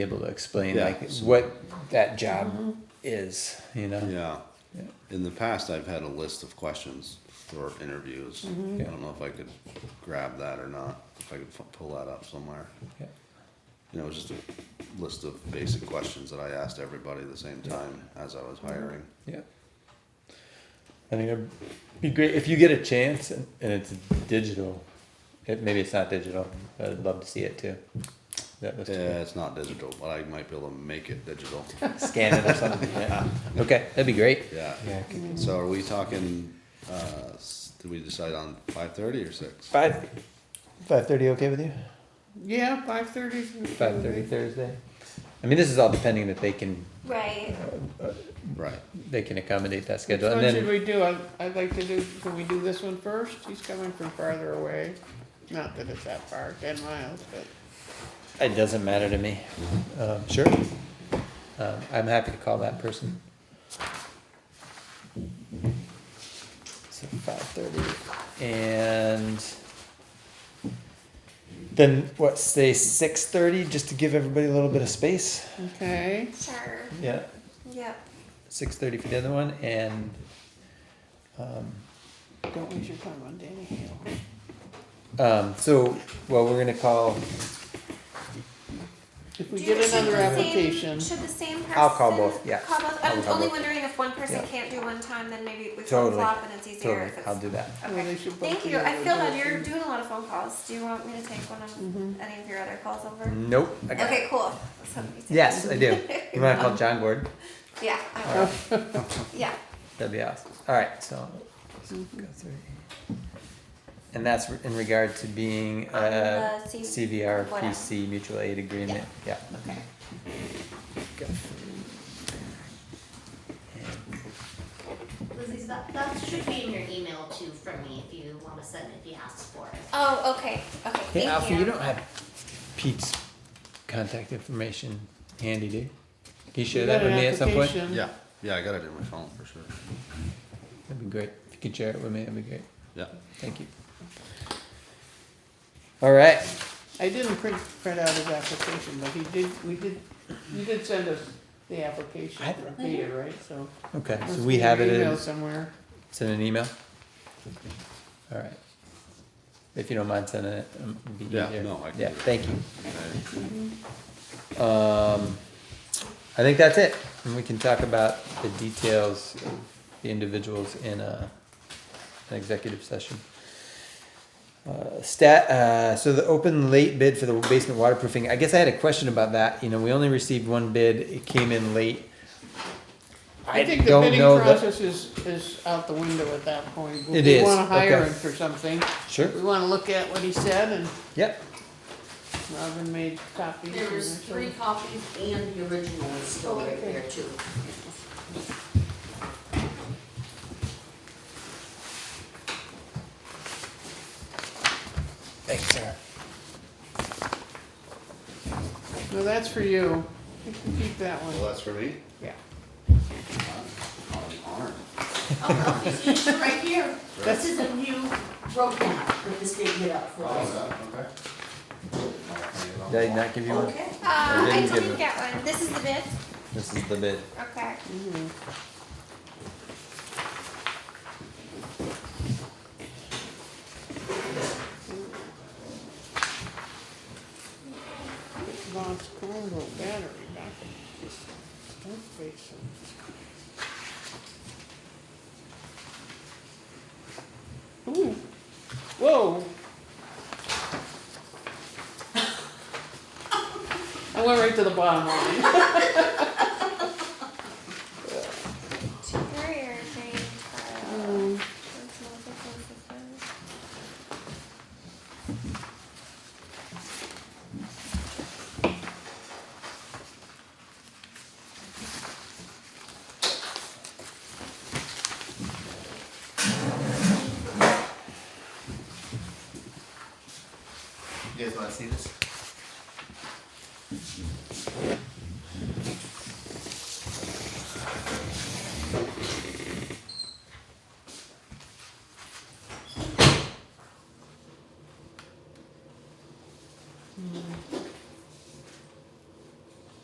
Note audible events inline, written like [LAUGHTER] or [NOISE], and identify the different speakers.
Speaker 1: able to explain
Speaker 2: Yeah,
Speaker 1: like
Speaker 2: so-
Speaker 1: what that job is, you know?
Speaker 2: Yeah. In the past, I've had a list of questions for interviews.
Speaker 1: Mm-hmm.
Speaker 2: I don't know if I could grab that or not, if I could fu- pull that up somewhere.
Speaker 1: Yeah.
Speaker 2: You know, it was just a list of basic questions that I asked everybody at the same time as I was
Speaker 1: Mm-hmm.
Speaker 2: hiring.
Speaker 1: Yeah. I think it'd be great if you get a chance and and it's digital. It, maybe it's not digital, but I'd love to see it too. That was
Speaker 2: Yeah, it's not digital, but I might be able to make
Speaker 1: [LAUGHS]
Speaker 2: it digital.
Speaker 1: scan it or something.
Speaker 2: [LAUGHS]
Speaker 1: yeah. Okay, that'd be great.
Speaker 2: Yeah.
Speaker 1: Yeah.
Speaker 2: So are we talking, uh, s- did we decide on five thirty or six?
Speaker 1: Five, five thirty. Okay with you?
Speaker 3: Yeah, five thirty.
Speaker 1: Five thirty Thursday. I mean, this is all depending that they can
Speaker 4: Right.
Speaker 2: Right.
Speaker 1: they can accommodate that
Speaker 3: Which
Speaker 1: schedule,
Speaker 3: one
Speaker 1: and
Speaker 3: should
Speaker 1: then
Speaker 3: we do? I'd, I'd like to do, can we do this one first? He's coming from farther away. Not that it's that far, ten miles, but.
Speaker 1: it doesn't matter to me. Um, sure. Um, I'm happy to call that person. So five thirty, and then what? Say six thirty, just to give everybody a little bit of space.
Speaker 3: Okay,
Speaker 4: Sure.
Speaker 1: Yeah.
Speaker 4: Yep.
Speaker 1: Six thirty for the other one, and um,
Speaker 3: don't waste your time on Danny Hale.
Speaker 1: um, so well, we're gonna call.
Speaker 3: If we
Speaker 4: Do-
Speaker 3: get
Speaker 4: should
Speaker 3: another
Speaker 4: the same-
Speaker 3: application,
Speaker 4: Should the same person?
Speaker 1: I'll call both, yeah.
Speaker 4: Call both.
Speaker 1: I'll
Speaker 4: I'm
Speaker 1: call
Speaker 4: only
Speaker 1: both.
Speaker 4: wondering if one person
Speaker 1: Yeah.
Speaker 4: can't do one time, then maybe we flip
Speaker 1: Totally.
Speaker 4: flop and it's easier
Speaker 1: Totally,
Speaker 4: if
Speaker 1: I'll
Speaker 4: it's.
Speaker 1: do that.
Speaker 3: Well, they
Speaker 4: Okay.
Speaker 3: should both
Speaker 4: Thank
Speaker 3: be
Speaker 4: you. I
Speaker 3: able to
Speaker 4: feel
Speaker 3: do
Speaker 4: that
Speaker 3: it
Speaker 4: you're
Speaker 3: then.
Speaker 4: doing a lot of phone calls. Do you want me to take one of any of your other calls over?
Speaker 1: Nope. I got it.
Speaker 4: Okay, cool. Somebody take
Speaker 1: Yes,
Speaker 4: one.
Speaker 1: I do. You want to call John Gordon?
Speaker 4: Yeah, I will. Yeah.
Speaker 1: That'd be awesome. All right, so.
Speaker 4: Mm-hmm.
Speaker 1: go through. And that's in regard to being
Speaker 4: On
Speaker 1: a
Speaker 4: the C-
Speaker 1: CVR
Speaker 4: whatever.
Speaker 1: PC mutual aid agreement. Yeah.
Speaker 4: Okay.
Speaker 5: Lizzie, that, that should be in your email too from me if you wanna send it, if you ask for it.
Speaker 4: Oh, okay.
Speaker 1: Hey,
Speaker 4: Okay. thank
Speaker 1: Alfie, you don't have Pete's contact information handy, do you? Can you share
Speaker 3: You
Speaker 1: that
Speaker 3: got
Speaker 1: with
Speaker 3: an
Speaker 1: me at some point?
Speaker 3: application.
Speaker 2: Yeah, yeah, I got it in my phone for sure.
Speaker 1: That'd be great. If you could share it with me, that'd be great.
Speaker 2: Yeah.
Speaker 1: Thank you. All right.
Speaker 3: I didn't print, print out his application, but he did, we did, you did send us the application
Speaker 1: I-
Speaker 3: repeated, right, so.
Speaker 1: Okay,
Speaker 3: must
Speaker 1: so
Speaker 3: be
Speaker 1: we
Speaker 3: in
Speaker 1: have
Speaker 3: your
Speaker 1: it in.
Speaker 3: Email somewhere.
Speaker 1: Send an email? Alright. If you don't mind sending it, um, it'd be
Speaker 2: Yeah,
Speaker 1: easier.
Speaker 2: no, I can
Speaker 1: Yeah,
Speaker 2: do that.
Speaker 1: thank you.
Speaker 2: Okay.
Speaker 1: Um, I think that's it, and we can talk about the details of the individuals in a, an executive session. Uh, stat, uh, so the open late bid for the basement waterproofing, I guess I had a question about that, you know, we only received one bid, it came in late.
Speaker 3: I think the
Speaker 1: don't
Speaker 3: bidding
Speaker 1: know that-
Speaker 3: process is, is out the window at that point.
Speaker 1: It
Speaker 3: If
Speaker 1: is,
Speaker 3: we wanna hire
Speaker 1: okay.
Speaker 3: him for something,
Speaker 1: Sure.
Speaker 3: we wanna look at what he said and
Speaker 1: Yep,
Speaker 3: Robin made copies.
Speaker 6: There was three copies and the original is still right there too.
Speaker 1: thanks, Sarah.
Speaker 3: No, that's for you. You can keep that
Speaker 2: Well,
Speaker 3: one.
Speaker 2: that's for me.
Speaker 3: Yeah.
Speaker 6: Oh, okay, so it's right here.
Speaker 3: That's-
Speaker 6: This is a new road map that this didn't get up for us.
Speaker 1: Did I not give you one?
Speaker 6: Okay.
Speaker 4: Uh, I
Speaker 1: didn't give
Speaker 4: didn't
Speaker 1: it.
Speaker 4: get one. This is the bid.
Speaker 1: This is the bid.
Speaker 4: Okay.
Speaker 3: Lost Cornwall battery back. in this dump basin. Ooh, whoa. I went right to the bottom line.
Speaker 4: Superior grade tile.
Speaker 3: Um,
Speaker 4: That's not the closest one.
Speaker 7: You guys wanna see this?